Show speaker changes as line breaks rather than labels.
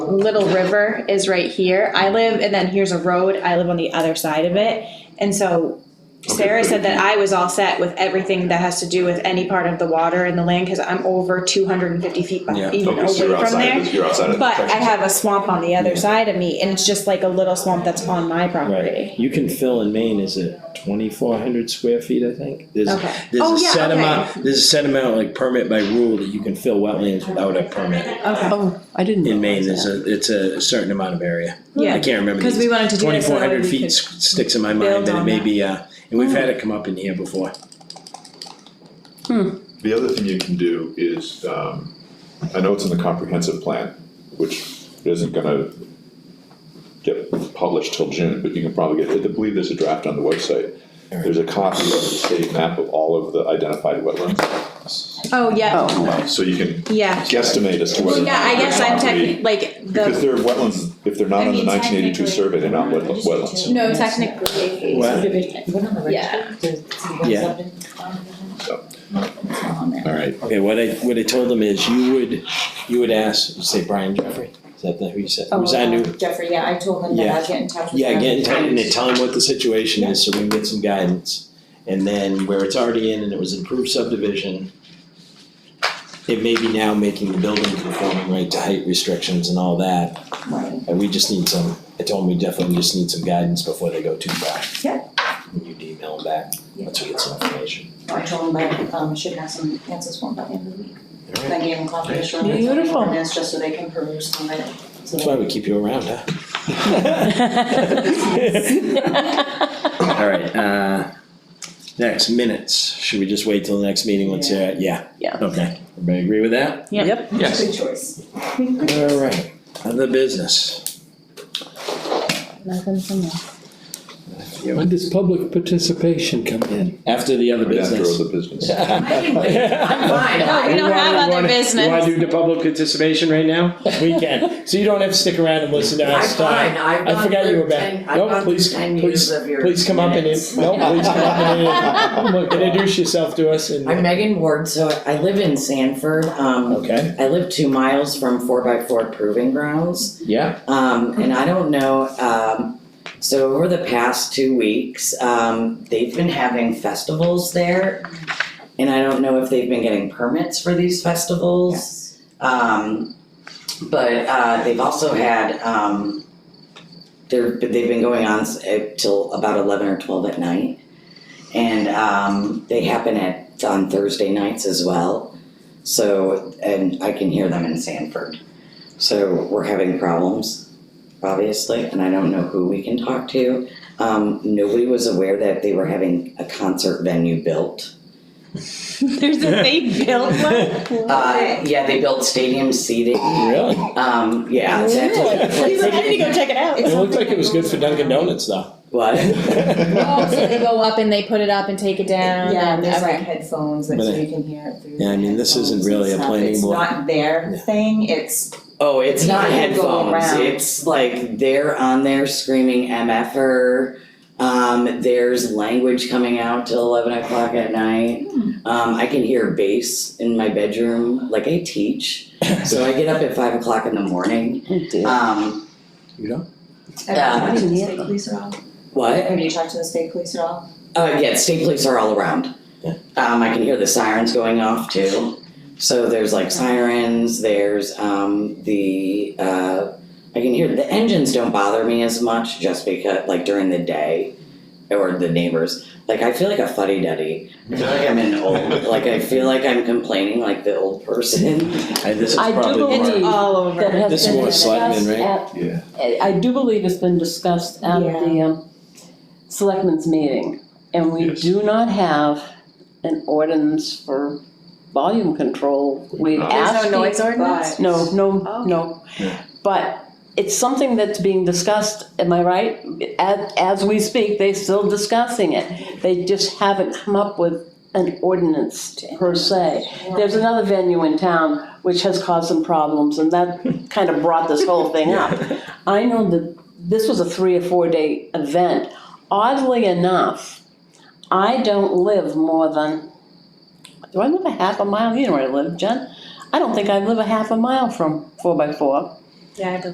Little River is right here. I live, and then here's a road. I live on the other side of it. And so Sarah said that I was all set with everything that has to do with any part of the water and the land, cause I'm over two hundred and fifty feet, beh-
Yeah.
even
Okay, so you're
away from
outside,
there.
of- you're outside of. the
But I
protection.
have a swamp on the
Yeah.
other side of me, and it's just like a little swamp that's on my
Right,
property.
you can fill in Maine, is it twenty-four hundred square feet, I think? There's,
Okay.
there's
Oh,
a
yeah,
set
okay.
amount, there's a set amount like permit by rule that you can fill wetlands without a permit.
Okay,
Oh, I didn't.
In Maine,
realize
there's
that.
a, it's a certain amount of area. I
yeah,
can't remember.
cause we wanted to do that so
Twenty-four
that way
hundred
we
feet
could.
s- sticks in my
build
mind, that it
on
may
that. Mm.
be, uh, and we've had it come up in here before.
The other thing you can do is, um, I know it's in the comprehensive plan, which isn't gonna get published till June, but you can probably get, I believe there's a draft on the website. There's a copy of the state map of all of the identified wetlands,
Oh, yeah,
Oh,
so you can
yeah.
guesstimate as to
Well,
whether. or
yeah, I
not
guess
they're
I'm
properly-
technically, like,
Because
the,
they're wetlands, if they're not
I
on the
mean,
nineteen eighty-two
technically-
survey, they're not wet- wetlands.
No, technically.
What?
What on the
Yeah.
register? The- the
Yeah.
subdivision?
So.
It's not on there.
Alright.
Okay, what I, what I told them is you would, you would ask, say Brian Jeffrey, is that the- who you said,
Oh,
who's our new?
um, Jeffrey, yeah, I told him that I'd get in touch with him.
Yeah, get in touch and then tell them what the situation is, so we can get some guidance. And then where it's already in and it was improved subdivision, it may be now making the building conforming right to height restrictions and all that.
Right.
And we just need some, I told them we definitely just need some guidance before they go too far.
Yeah.
And you'd email them back, once we get some information.
I told him that, um, should have some answers for him by the end of the week. And I gave him a copy of the shoreline zoning
Beautiful.
ordinance, just so they can peruse through it. So
That's
they-
why we keep you around, huh? All right, uh, next, minutes. Should we just wait till the next meeting once you're, yeah?
Yeah.
Okay, everybody agree with that?
Yep,
Yes.
Good choice.
All right, other business.
nothing from me.
When does public participation come in?
After the other
Right after all
business.
the business.
Uh,
no, we don't have other business.
You wanna do the public participation right now? We can, so you don't have to stick around and listen to us Uh,
I'm fine,
talk.
I've
I
gone
forgot you
through
were back.
ten, I've
Nope,
gone through
please-
ten
please-
years of your
Please come up and, in-
minutes.
no, please come up and, in. Look, introduce yourself to us and.
I'm Megan Ward, so I live in Sanford, um,
Okay,
I live two miles from four by four proving grounds.
yeah,
Um, and I don't know, um, so over the past two weeks, um, they've been having festivals there. And I don't know if they've been getting permits for these festivals. Um, but uh, they've also had um, they're they've been going on s- uh, till about eleven or twelve at night, and um, they happen at on Thursday nights as well. So and I can hear them in Sanford. So we're having problems, obviously, and I don't know who we can talk to. Um, nobody was aware that they were having a concert venue built.
There's a they built one.
Uh, yeah, they built stadium seating.
really?
Um, yeah, it's at-
He's like, I need to go check it out.
It looked like it was good for Dunkin' Donuts though.
What?
Oh, so they go up and they put it up and take it down.
Yeah,
and-
there's like
okay.
headphones, like so
But I-
you can hear it through.
Yeah, I mean, this isn't
headphones and
really a planning
stuff.
board.
It's not their
Yeah.
thing, it's,
Oh, it's not
You can go
headphones.
around.
It's like they're on there screaming MFR. Um, there's language coming out till eleven o'clock at night.
Hmm.
Um, I can hear bass in my bedroom. Like I teach, so I get up at five o'clock in the morning.
Oh, dear.
Um,
You know?
have you talked to the
Yeah.
state police at all?
what?
Have you talked to the state police at all?
Uh, yeah, state police are all around.
Yeah.
Um, I can hear the sirens going off too. So there's like sirens. There's um, the uh, I can hear the engines don't bother me as much just because like during the day or the neighbors. Like I feel like a fuddy duddy. I feel like I'm an old. Like I feel like I'm complaining like the old person.
I, this is
I do
probably
believe-
more,
It's all over.
That has
This
been
was Selectmen,
discussed
right?
at-
Yeah.
I I do believe it's been discussed at
Yeah.
the um, selectmen's meeting. And we
Yes.
do not have an ordinance for volume control. We've
There's
asked.
There's no noise
people-
ordinance?
No, no,
Oh.
no.
Yeah.
But it's something that's being discussed, am I right? As, as we speak, they're still discussing it. They just haven't come up with an ordinance per se. There's another venue in town which has caused some problems and that kind of brought this whole thing up. I know that this was a three or four day event. Oddly enough, I don't live more than, do I live a half a mile? You know where I live, Jen? I don't think I live a half a mile from four by four.
Yeah, I believe